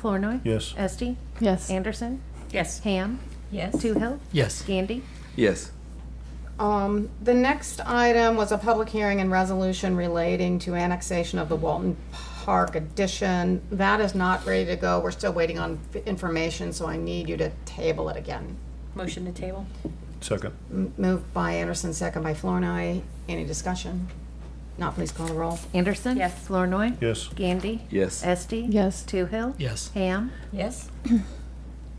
Flournoy. Yes. Esti. Yes. Anderson. Yes. Ham. Yes. Toohill. Yes. Gandy. Yes. Um, The next item was a public hearing and resolution relating to annexation of the Walton Park addition. That is not ready to go. We're still waiting on f- information, so I need you to table it again. Motion to table? Second. M- Moved by Anderson, second by Flornoy. Any discussion? Not, please call the roll. Anderson. Yes. Flournoy. Yes. Gandy. Yes. Esti. Yes. Toohill. Yes. Ham. Yes.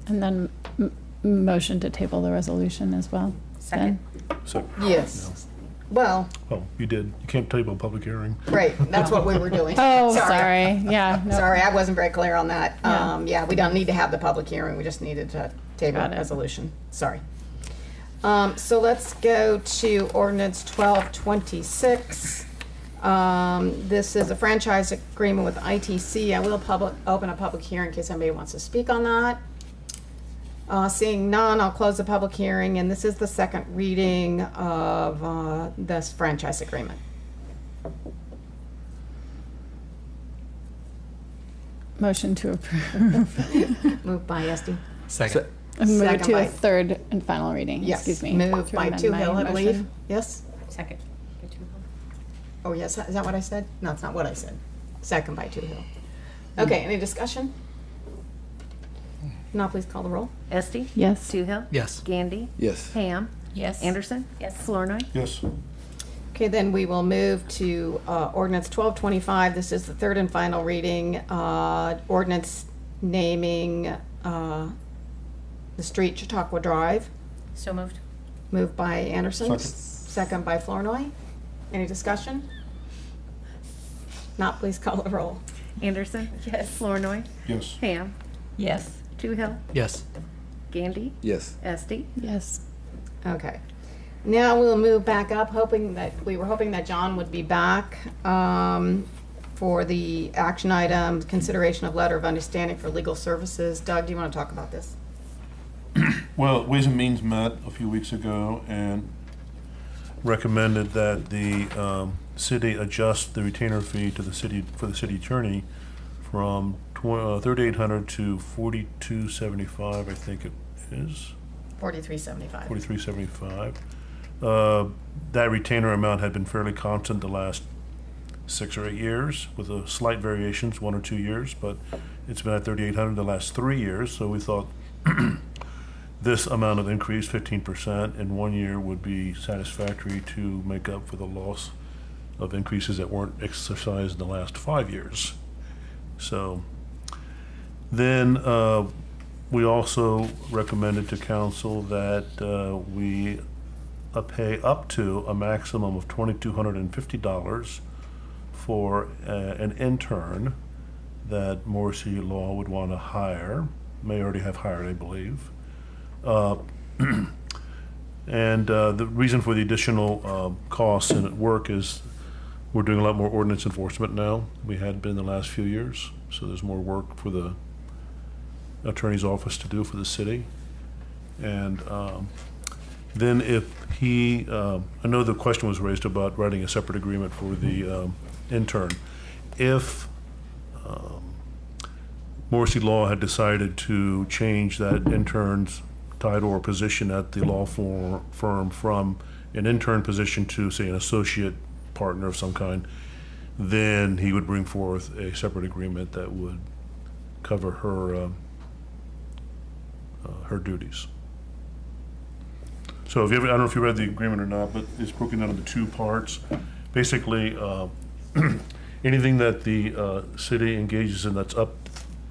And then m- m- motion to table the resolution as well. Second. Second. Yes. Well, Oh, you did. You can't table a public hearing. great, that's what we were doing. Oh, sorry. Yeah. no. Sorry, I wasn't very clear on that. Yeah. Um, yeah, we don't need to have the public hearing, we just needed to table Got it. resolution, sorry. Um, so let's go to ordinance twelve twenty-six. Um, this is a franchise agreement with ITC. I will public, open a public hearing in case anybody wants to speak on that. Uh, seeing none, I'll close the public hearing, and this is the second reading of, uh, this franchise agreement. Motion to approve. Moved by Esti. Se- Second. And Move Second to by- a third and final reading, Yes. excuse me. Moved to by amend Two my Hill, I believe. motion. Yes? Second. Oh, yes, is that what I said? No, it's not what I said. Second by Two Hill. Okay, any discussion? Now please call the roll. Esti. Yes. Toohill. Yes. Gandy. Yes. Ham. Yes. Anderson. Yes. Flournoy. Yes. Okay, then we will move to uh, ordinance 1225. This is the third and final reading. uh, Ordinance naming uh, the street Chautauqua Drive. So moved? Moved by Anderson. Second. Second by Flornoy. Any discussion? Not please call the roll. Anderson. Yes. Flournoy. Yes. Ham. Yes. Toohill. Yes. Gandy. Yes. Esti. Yes. Okay. Now we'll move back up, hoping that, we were hoping that John would be back um, for the action item, consideration of letter of understanding for legal services. Doug, do you want to talk about this? Well, Ways and Means met a few weeks ago and recommended that the um, city adjust the retainer fee to the city, for the city attorney from uh, thirty-eight hundred to forty-two seventy-five, I think it is. 4375. forty-three seventy-five. Uh, that retainer amount had been fairly constant the last six or eight years, with a slight variations, one or two years, but it's been at thirty-eight hundred the last three years, so we thought this amount of increase, fifteen percent in one year, would be satisfactory to make up for the loss of increases that weren't exercised in the last five years. So, then, uh, we also recommended to council that uh, we uh, pay up to a maximum of twenty-two hundred and fifty dollars for uh, an intern that Morrissey Law would want to hire, may already have hired, I believe. Uh, And uh, the reason for the additional um, costs and work is we're doing a lot more ordinance enforcement now. than We had been the last few years, so there's more work for the attorney's office to do for the city. And um, then if he, um, I know the question was raised about writing a separate agreement for the um, intern. If um, Morrissey Law had decided to change that intern's title or position at the law for- firm from an intern position to, say, an associate partner of some kind, then he would bring forth a separate agreement that would cover her, um, uh, her duties. So if you ever, I don't know if you read the agreement or not, but it's broken down into two parts. Basically, uh, anything that the uh, city engages in that's up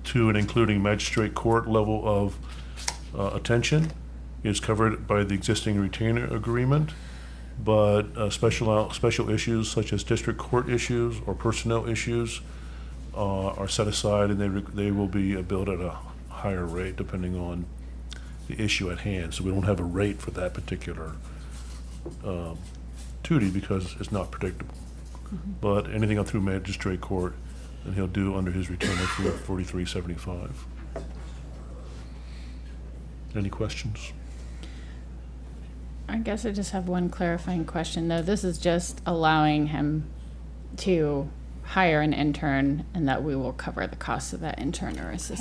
to and including magistrate court level of uh, attention is covered by the existing retainer agreement. But uh, special, special issues such as district court issues or personnel issues uh, are set aside and they, re- they will be uh, billed at a higher rate depending on the issue at hand. So we don't have a rate for that particular um, duty because it's not predictable. But anything up through magistrate court, then he'll do under his return of forty-three seventy-five. Any questions? I guess I just have one clarifying question, though. This is just allowing him to hire an intern and that we will cover the cost of that intern or assistant.